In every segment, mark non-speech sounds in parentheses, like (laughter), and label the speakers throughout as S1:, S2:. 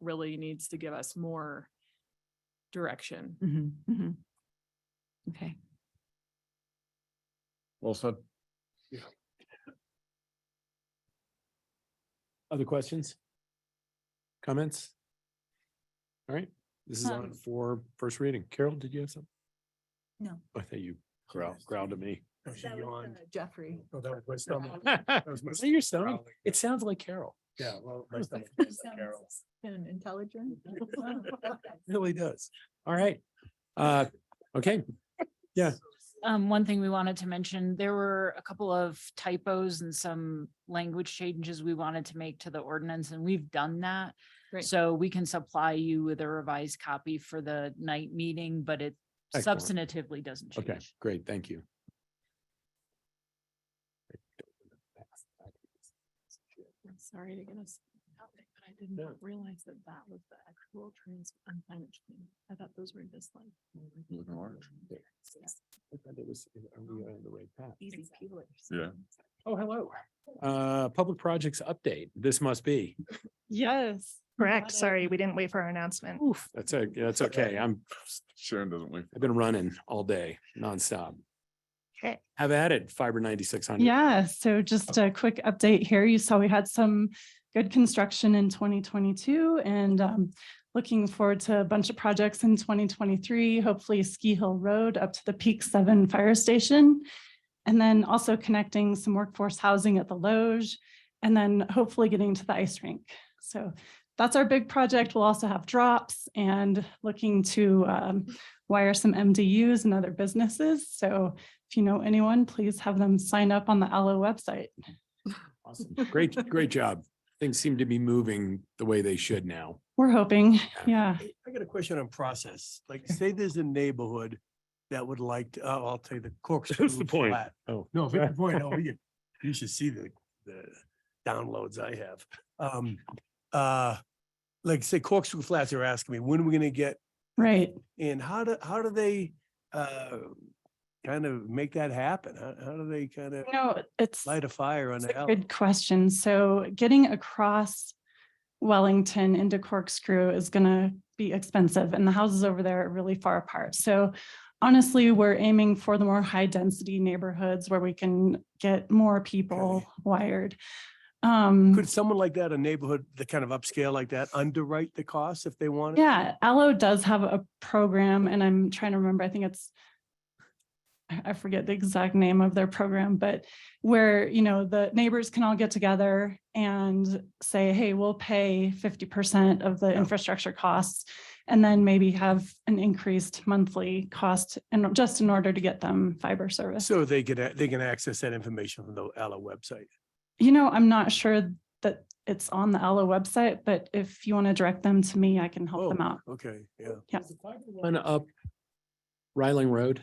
S1: really needs to give us more direction.
S2: Mhm, mhm. Okay,
S3: Well said.
S4: Other questions? Comments? All right, this is on
S2: Um,
S4: for first reading. Carol, did you have something?
S2: No.
S4: I thought you growled, (laughs) growled at me.
S5: That was, uh,
S2: Jeffrey.
S5: Oh, that was my
S4: (laughs)
S5: stomach. was my
S4: Is that your stomach?
S5: growling.
S4: It sounds like Carol.
S5: Yeah, well, my
S4: Okay.
S5: stomach was like Carol.
S2: And intelligent.
S4: It really does. All right. Uh, okay,
S1: (laughs)
S6: Um, one thing we wanted to mention, there were a couple of typos and some language changes we wanted to make to the ordinance, and we've done that.
S1: Great.
S6: So we can supply you with a revised copy for the night meeting, but it
S4: Excellent.
S6: substantively doesn't
S4: okay,
S6: change.
S4: great. Thank you.
S1: I'm sorry to get us out there, but I did not realize that that was the actual trans and climate change. I thought those were just like.
S3: Looking large.
S4: I thought it was- Are we on the right path?
S2: Easy peelers.
S3: Yeah.
S4: Oh, hello. Uh, public projects update. This must be.
S7: Yes, correct. Sorry, we didn't wait for our announcement.
S4: Oof, that's o- that's okay. I'm,
S3: Sharon doesn't wait.
S4: I've been running all day nonstop.
S7: Okay.
S4: Have at it, fiber ninety-six hundred.
S7: Yeah, so just a quick update here. You saw we had some good construction in 2022 and um, looking forward to a bunch of projects in 2023, hopefully Ski Hill Road up to the Peak Seven Fire Station. And then also connecting some workforce housing at the Loge and then hopefully getting to the ice rink. So that's our big project. We'll also have drops and looking to um, wire some MDUs and other businesses. So if you know anyone, please have them sign up on the ALLO website.
S4: Awesome. Great, great job. Things seem to be moving the way they should now.
S7: We're
S5: (laughs)
S7: hoping, yeah.
S5: Hey, I got a question on process. Like, say there's a neighborhood that would like, to- oh, I'll tell you the
S4: (laughs)
S5: corkscrew.
S4: point.
S5: flat.
S4: Oh.
S5: (laughs) No, fifty
S4: (laughs)
S5: point, oh, you, you should see the, the downloads I have. Um, uh, like say corkscrew flats are asking me, when are we gonna get
S7: Right.
S5: And how do, how do they, uh, kind of make that happen? How, how do they kind of
S7: No, it's.
S5: light a fire on
S7: It's
S5: the
S7: a
S5: alley?
S7: Good question. So getting across Wellington into Corkscrew is gonna be expensive and the houses over there are really far apart. So honestly, we're aiming for the more high density neighborhoods where we can get more people wired. Um,
S5: Could someone like that, a neighborhood, the kind of upscale like that, underwrite the costs if they wanted?
S7: Yeah, Allo does have a program and I'm trying to remember, I think it's I I forget the exact name of their program, but where, you know, the neighbors can all get together and say, hey, we'll pay fifty percent of the infrastructure costs. And then maybe have an increased monthly cost and just in order to get them fiber service.
S5: So they could, a- they can access that information from the Ella website.
S7: You know, I'm not sure that it's on the Allo website, but if you want to direct them to me, I can help them
S5: Oh,
S7: out.
S5: Okay, yeah,
S7: Yeah.
S4: One up Ryling Road.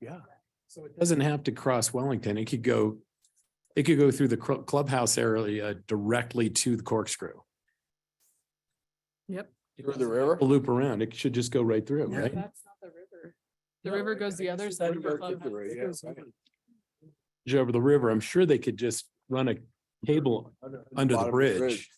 S5: yeah. So it
S4: Doesn't have to cross Wellington. It could go, it could go through the cl- clubhouse area directly to the corkscrew.
S1: Yep.
S3: Through the river?
S4: A Loop around. It should just go right through,
S5: Yeah.
S4: right?
S1: That's not the river. (laughs) The river goes the other side. of the clubhouse.
S4: Bridge Over the river. I'm sure they could just run a cable under the bridge.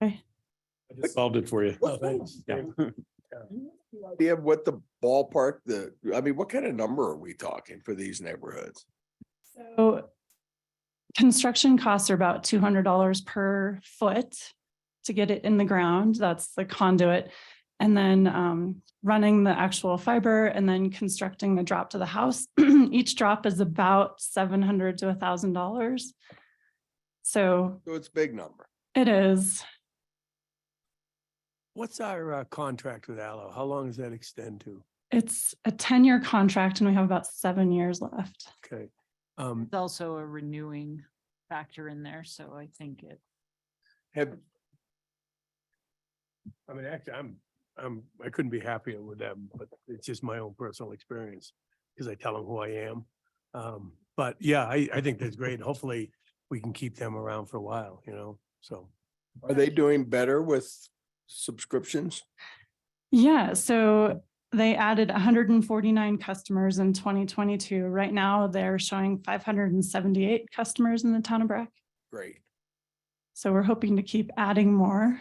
S7: Okay.
S4: I just Solved it for you.
S5: Oh, thanks.
S4: Yeah. (laughs)
S8: idea of what the ballpark, the, I mean, what kind of number are we talking for these neighborhoods?
S7: So construction costs are about two hundred dollars per foot to get it in the ground. That's the conduit. And then um, running the actual fiber and then constructing the drop to the house. (clears throat) Each drop is about seven hundred to thousand dollars. So
S8: So it's a big number.
S7: it is,
S5: What's our uh, contract with Ella? How long does that extend to?
S7: it's a ten-year contract and we have about seven years left.
S5: Okay. Um,
S6: It's also a renewing factor in there, so I think it.
S8: Have,
S5: I mean, actually, I'm, I'm, I couldn't be happier with them, but it's just my own personal experience. Cause I tell them who I am. Um, but yeah, I, I think that's great. Hopefully we can keep them around for a while, you know, so.
S8: are they doing better with subscriptions?
S7: Yeah, so they added hundred and forty-nine customers in twenty twenty-two. Right now, they're showing five hundred and seventy-eight customers in the town of Breck.
S8: Great.
S7: So we're hoping to keep adding more.